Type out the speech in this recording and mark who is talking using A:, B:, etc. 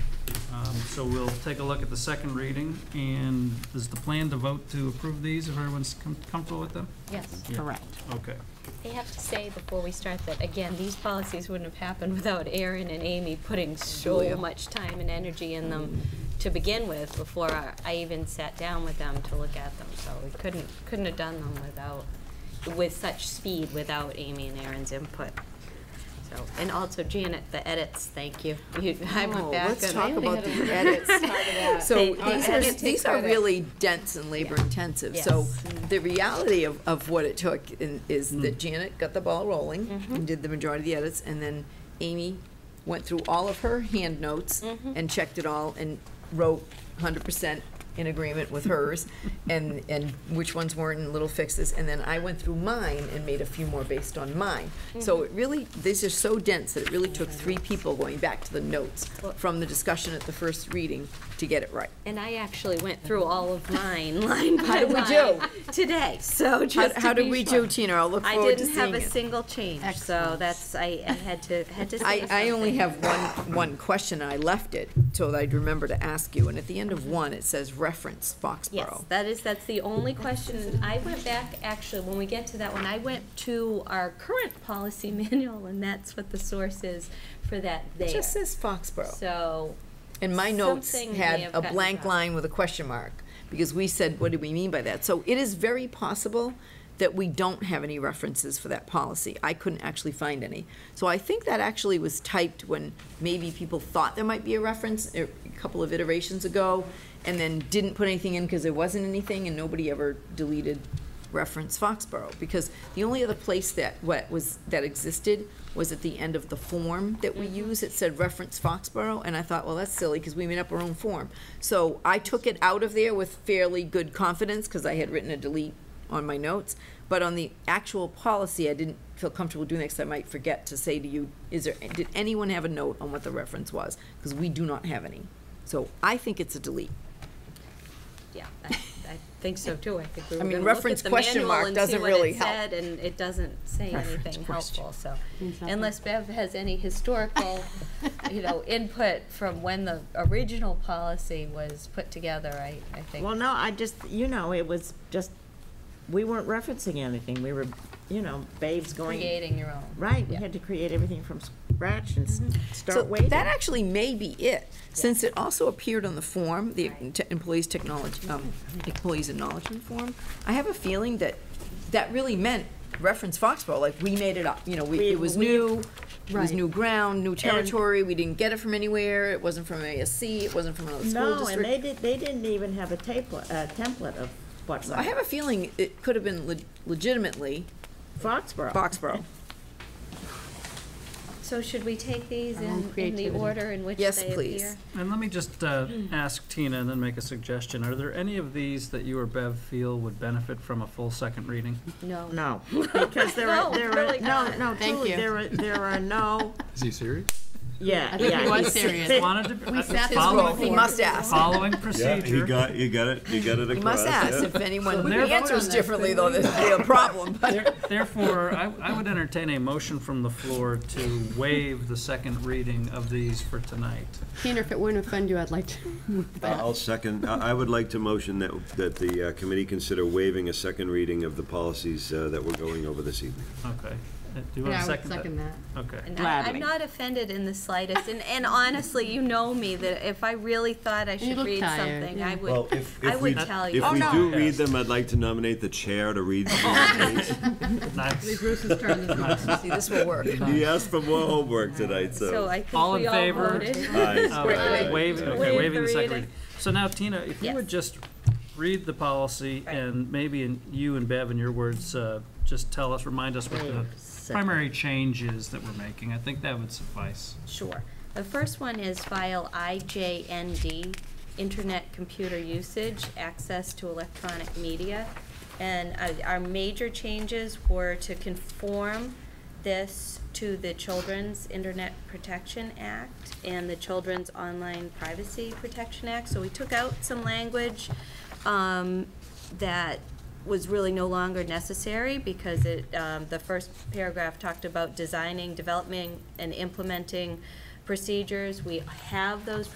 A: Um, So we'll take a look at the second reading, and is the plan to vote to approve these, if everyone's com- comfortable with them?
B: Yes.
A: Yeah.
C: Correct.
A: Okay.
B: They have to say before we start that, again, these policies wouldn't have happened without Aaron and Amy putting
D: Oh,
B: so much time and energy in them to begin with, before I I even sat down with them to look at them. So we couldn't, couldn't have done them without, with such speed, without Amy and Aaron's input. So, and also Janet, the edits, thank you. You- I went
D: Oh,
B: back
D: Let's
B: and-
D: talk about
E: had
D: the
E: a-
D: edits.
B: They-
D: So
B: Our
D: these are,
E: edits
D: these
E: take
D: are
E: credit.
D: really dense and labor intensive. So the reality of, of what it took in- is that Janet got the ball rolling and did the majority of the edits. And then Amy went through all of her hand notes and checked it all and wrote hundred percent in agreement with hers and, and which ones weren't and little fixes. And then I went through mine and made a few more based on mine. So it really, these are so dense that it really took three people going back to the notes from the discussion at the first reading to get it right.
B: And I actually went through all of mine, line by line.
D: did we do?
B: Today, so
D: How,
B: just to
D: how did
B: be
D: we
B: sure.
D: do, Tina? I'll look
B: I
D: forward to
B: didn't have
D: seeing
B: a
D: it.
B: single change, so
C: Excellent.
B: that's, I, I had to, had to say
D: I, I only
B: something.
D: have one, one question, and I left it till I'd remember to ask you, and at the end of one, it says reference
B: Yes,
D: Foxborough.
B: that is, that's the only question. I went back, actually, when we get to that one, I went to our current policy manual, and that's what the source is for that there.
D: It just says Foxborough.
B: So,
D: And my notes
B: something may
D: had
B: have
D: a
B: gotten
D: blank
B: dropped.
D: line with a question mark, because we said, what do we mean by that? So it is very possible that we don't have any references for that policy. I couldn't actually find any. So I think that actually was typed when maybe people thought there might be a reference er, a couple of iterations ago, and then didn't put anything in because there wasn't anything, and nobody ever deleted reference Foxborough, because the only other place that, what was, that existed was at the end of the form that we use, it said reference Foxborough, and I thought, well, that's silly, because we made up our own form. So I took it out of there with fairly good confidence, because I had written a delete on my notes, but on the actual policy, I didn't feel comfortable doing that, because I might forget to say to you, is there, did anyone have a note on what the reference was? Because we do not have any. So I think it's a delete.
B: yeah, I, I think so too. I think we were
D: I mean,
B: gonna look at
D: reference
B: the manual
D: question mark
B: and see
D: doesn't
B: what
D: really
B: it
D: help.
B: said, and it doesn't say
D: Reference
B: anything
D: question.
B: helpful, so. Unless Bev has any historical, you know, input from when the original policy was put together, I, I think.
E: Well, no, I just, you know, it was just, we weren't referencing anything. We were, you know, babes going.
B: Creating your own.
E: Right, we had to create everything from scratch and s-
D: Mm-hmm. So
E: start waiting.
D: That actually may be it, since it also appeared on the form, the
B: Right.
D: te- employees technology, um, employees acknowledgement form. I have a feeling that that really meant reference Foxborough, like we made it up, you know, we,
E: We-
D: it was
E: we-
D: new, it was
E: Right.
D: new ground, new territory, we didn't get it from anywhere, it wasn't from ASC, it wasn't from another school
E: No, and they
D: district.
E: did, they didn't even have a template, a template of what,
D: So I have a feeling it could have been le- legitimately
E: Foxborough.
D: Foxborough.
B: So should we take these
C: Our own
B: in, in the
C: creativity.
B: order in which they
D: Yes,
B: appear?
D: please.
A: And let me just uh, ask Tina and then make a suggestion. Are there any of these that you or Bev feel would benefit from a full second reading?
B: No.
E: No, because there
B: No,
E: are, there are,
B: really
E: no,
B: not.
E: no,
C: Thank
E: truly,
C: you.
E: there are, there are no,
F: Is he serious?
E: yeah,
C: think
E: yeah.
C: he was
E: he's-
C: serious.
A: Wanted to,
C: We sat this
A: following,
C: role
D: He must ask.
A: uh, following
G: Yeah,
A: procedure.
G: he got, you got it, you got it across.
D: He must ask
G: yeah.
D: if anyone
A: they're put
D: answers
A: on that,
D: differently, though, this would be a problem, but.
A: There- Therefore, I, I would entertain a motion from the floor to waive the second reading of these for tonight.
C: Tina, if it wouldn't offend you, I'd like to move
G: I-
C: that.
G: I'll second, I, I would like to motion that, that the uh, committee consider waiving a second reading of the policies uh, that we're going over this evening.
A: Okay. Uh, Do you want to
C: Yeah, I would
A: second that?
C: second that.
A: Okay.
B: And I, I'm
E: Gladly.
B: not offended in the slightest, and, and honestly, you know me, that if I really thought I should
C: look
B: read
C: tired,
B: something,
C: yeah.
B: I would,
G: Well, if,
B: I
G: if we,
B: would tell you. Oh,
G: if we
A: no.
G: do read them, I'd like to nominate the chair to read them.
A: Nice.
C: Bruce's turn.
D: See, this will work.
G: He asked for more homework tonight,
B: So
G: so.
B: I think
A: All in
B: we all
A: favor?
B: voted.
G: Aye.
A: All right,
G: Aye.
A: waive-
G: Aye.
A: okay,
B: Waive
A: waiving the
B: the
A: second
B: reading.
A: reading. So now, Tina, if you
B: Yes.
A: would just read the policy
B: Right.
A: and maybe in you and Bev, in your words, uh, just tell us, remind us what the primary change is that we're making. I think that would suffice.
B: Sure. The first one is file IJND, Internet Computer Usage, Access to Electronic Media. And uh, our major changes were to conform this to the Children's Internet Protection Act and the Children's Online Privacy Protection Act. So we took out some language um, that was really no longer necessary because it, um, the first paragraph talked about designing, developing, and implementing procedures. We have those